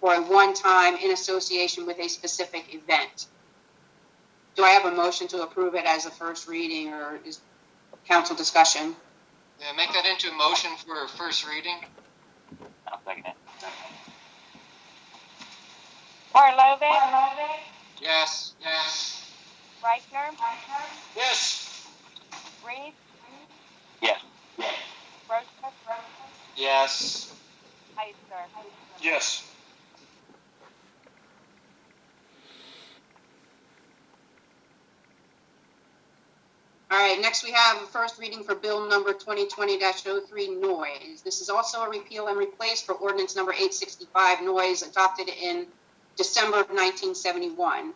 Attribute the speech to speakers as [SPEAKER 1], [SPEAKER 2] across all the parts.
[SPEAKER 1] for a one-time in association with a specific event. Do I have a motion to approve it as a first reading or is council discussion?
[SPEAKER 2] Yeah, make that into a motion for first reading.
[SPEAKER 3] I'll second it.
[SPEAKER 4] Barlovin,
[SPEAKER 2] Yes, yes.
[SPEAKER 4] Reichner,
[SPEAKER 2] Yes.
[SPEAKER 4] Reed,
[SPEAKER 3] Yes.
[SPEAKER 4] Roseman,
[SPEAKER 2] Yes.
[SPEAKER 4] Ister.
[SPEAKER 2] Yes.
[SPEAKER 1] All right, next we have a first reading for bill number 2020-03 noise. This is also a repeal and replace for ordinance number 865 noise adopted in December of 1971.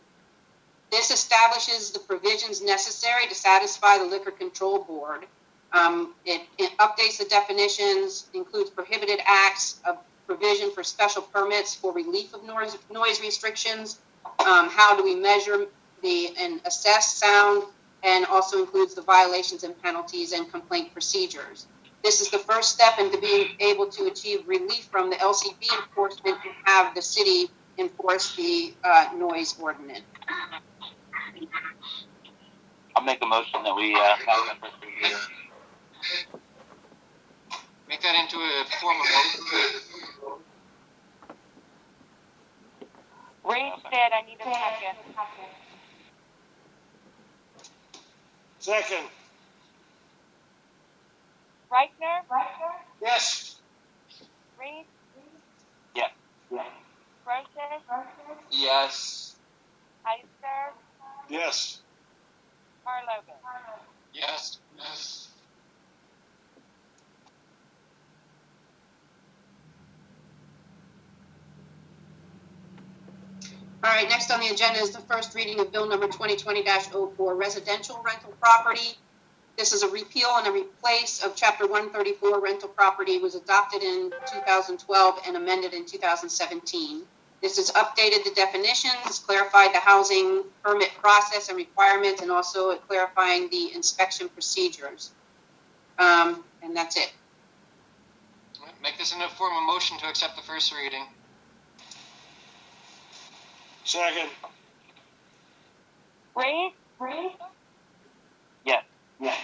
[SPEAKER 1] This establishes the provisions necessary to satisfy the Liquor Control Board. Um, It it updates the definitions, includes prohibited acts, a provision for special permits for relief of noise noise restrictions. Um, How do we measure the, and assess sound and also includes the violations and penalties and complaint procedures. This is the first step into being able to achieve relief from the LCB enforcement and have the city enforce the uh, noise ordinance.
[SPEAKER 3] I'll make a motion that we, uh, have that first reading.
[SPEAKER 2] Make that into a form of motion.
[SPEAKER 4] Reed said I need a second.
[SPEAKER 2] Second.
[SPEAKER 4] Reichner,
[SPEAKER 2] Yes.
[SPEAKER 4] Reed,
[SPEAKER 3] Yes.
[SPEAKER 4] Roseman,
[SPEAKER 2] Yes.
[SPEAKER 4] Ister,
[SPEAKER 2] Yes.
[SPEAKER 4] Barlovin.
[SPEAKER 2] Yes. Yes.
[SPEAKER 1] All right, next on the agenda is the first reading of Bill number 2020-04, residential rental property. This is a repeal and a replace of Chapter 134 rental property was adopted in 2012 and amended in 2017. This has updated the definitions, clarified the housing permit process and requirements, and also clarifying the inspection procedures. Um, And that's it.
[SPEAKER 2] Make this into a form of motion to accept the first reading.
[SPEAKER 5] Second,
[SPEAKER 4] Reed? Reed?
[SPEAKER 3] Yes. Yes.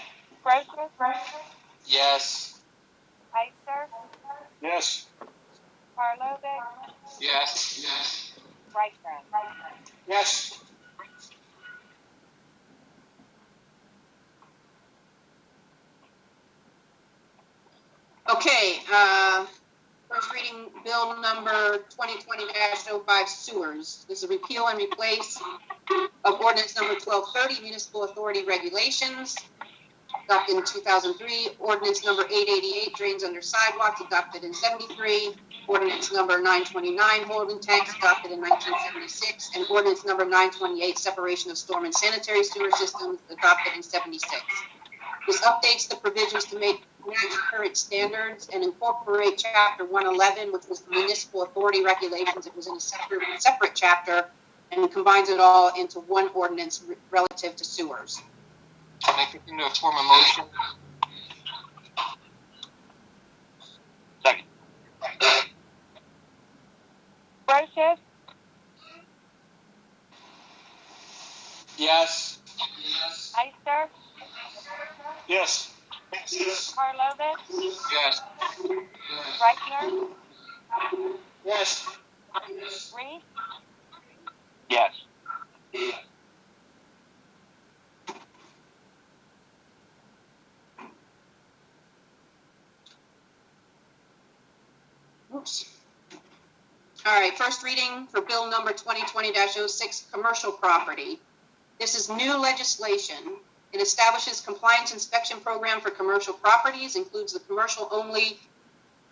[SPEAKER 4] Roseman,
[SPEAKER 2] Yes.
[SPEAKER 4] Ister,
[SPEAKER 5] yes,
[SPEAKER 4] Barlovin,
[SPEAKER 2] Yes. Yes.
[SPEAKER 4] Reichner.
[SPEAKER 2] Yes.
[SPEAKER 1] Okay, uh, first reading bill number 2020-05 sewers. This is repeal and replace of ordinance number 1230 municipal authority regulations adopted in 2003, ordinance number 888 drains under sidewalks adopted in 73, ordinance number 929 holding tanks adopted in 1976, and ordinance number 928 separation of storm and sanitary sewer systems adopted in 76. This updates the provisions to make match current standards and incorporate chapter one eleven, which was the municipal authority regulations. It was in a separate, separate chapter and combines it all into one ordinance re- relative to sewers.
[SPEAKER 2] Make this into a form of motion.
[SPEAKER 3] Second.
[SPEAKER 4] Roseman,
[SPEAKER 2] Yes. Yes.
[SPEAKER 4] Ister,
[SPEAKER 5] yes,
[SPEAKER 4] Barlovin,
[SPEAKER 2] Yes.
[SPEAKER 4] Reichner,
[SPEAKER 2] Yes.
[SPEAKER 4] Reed,
[SPEAKER 3] Yes.
[SPEAKER 1] Oops. All right, first reading for bill number 2020-06, commercial property. This is new legislation. It establishes compliance inspection program for commercial properties, includes the commercial-only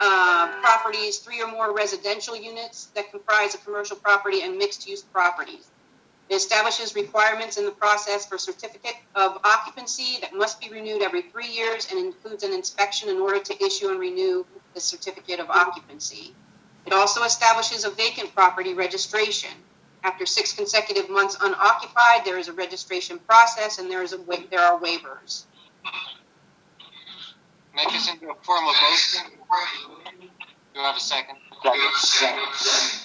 [SPEAKER 1] uh, properties, three or more residential units that comprise a commercial property and mixed-use properties. It establishes requirements in the process for certificate of occupancy that must be renewed every three years and includes an inspection in order to issue and renew the certificate of occupancy. It also establishes a vacant property registration. After six consecutive months unoccupied, there is a registration process and there is a wa- there are waivers.
[SPEAKER 2] Make this into a form of motion. Do I have a second?
[SPEAKER 3] Second.